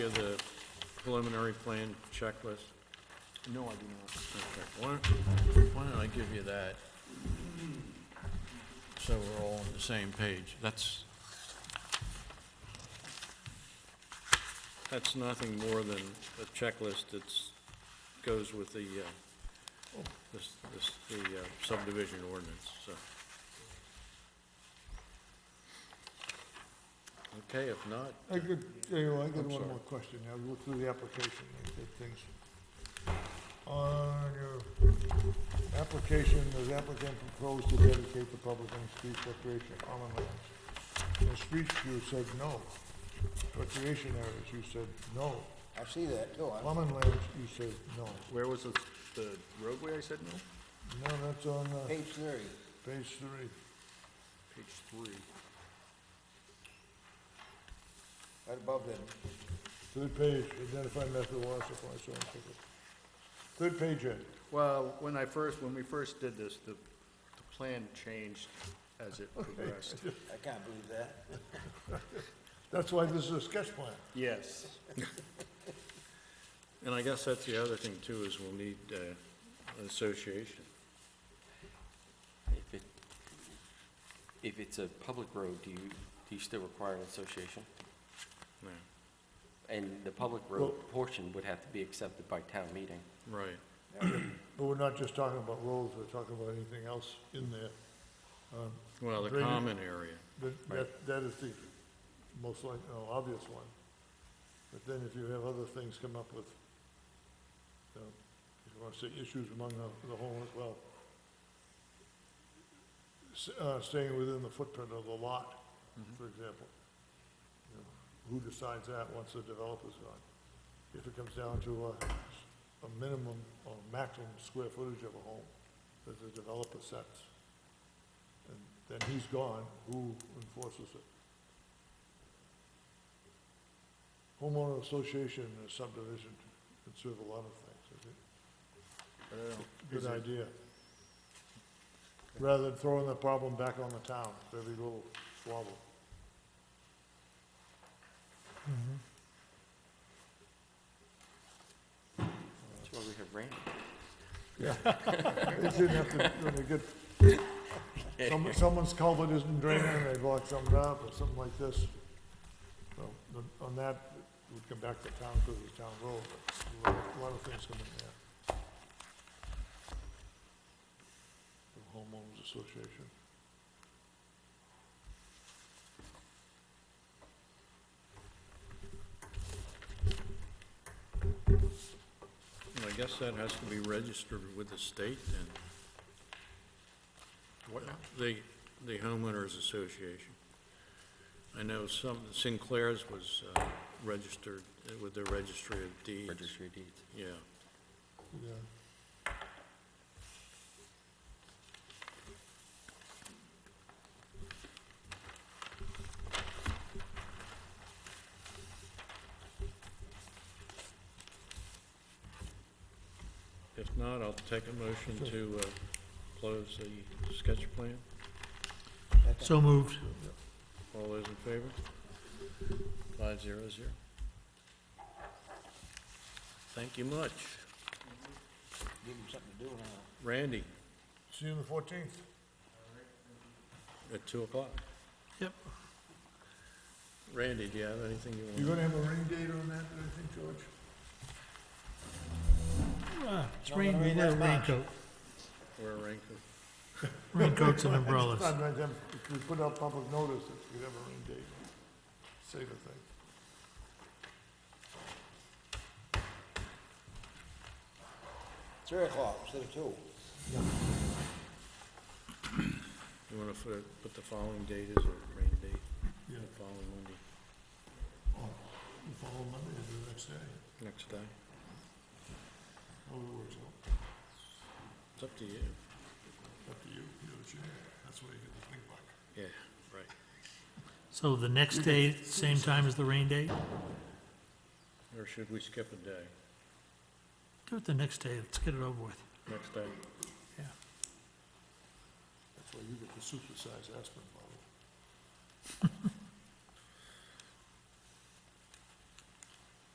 preliminary plan checklist? No, I do not. Okay, Why why don't I give you that? So we're all on the same page. That's, that's nothing more than a checklist that's, goes with the, uh, this, this, the uh, subdivision ordinance, so. Okay, if not, I could, you know, I got I'm one sorry. more question. I looked through the application, I did things. On your application, the applicant proposed to dedicate the public and street recreation on and lands. In streets, you said no. Recreation areas, you said no. I see that, too. I- Common lands, you said no. Where was the, the roadway I said no? No, that's on uh, Page thirty. page three. Page three. right above that. Third page, identify method of water supply, so on and so forth. Third page, Ed. Well, when I first, when we first did this, the, the plan changed as it progressed. I can't believe that. That's why this is a sketch plan. Yes. and I guess that's the other thing too, is we'll need uh, an association. If it, if it's a public road, do you, do you still require an association? Yeah, And the public road portion would have to be accepted by town meeting. Right. But we're not just talking about roads, we're talking about anything else in there. Well, the Drainage. common area. That- That, that is the most like, no, obvious one. But then if you have other things come up with, you know, if you want to say issues among the, the whole as well. S- Uh, staying within the footprint of the lot, for example. You know, Who decides that once the developer's gone? If it comes down to a, a minimum or maximum square footage of a home that the developer sets and then he's gone, who enforces it? Homeowner association and subdivision can serve a lot of things, I think. I don't know. Is Good it- idea. Rather than throwing the problem back on the town, for every little squabble. That's why we have Randy. It didn't have to, when they get, some- someone's culvert isn't draining, they block something up, or something like this. So, the- on that, it would come back to town, because it's town road, but a lot of things come in there. The homeowners association. Well, I guess that has to be registered with the state then. What The, the homeowners association. I know some, Sinclair's was uh, registered uh, with the registry of deeds. Registry of Deeds. Yeah, Yeah. if not, I'll take a motion to uh, close the sketch plan. So. All those in favor? Five zero zero. Thank you much. Give him something to do now. Randy, See you on the fourteenth. at two o'clock. Yep. Randy, do you have anything you want? You gonna have a rain date on that, do you think, George? It's rain, we wear raincoat, We're ranking. raincoats and It's umbrellas. not like them- If we put out public notice, if we have a rain date, save a thing. Three o'clock instead of two. You want to put, put the following date as a rain date? Yeah. The following Monday, Oh, The following Monday is the next day. next day? Oh, it works out. It's up to you. Up to you, you know what you need. That's where you get the big buck. Yeah, right. So the next day, same time as the rain date? Or should we skip a day? Do it the next day, let's get it over with. Next day? Yeah. That's where you get the supersized aspirin bottle.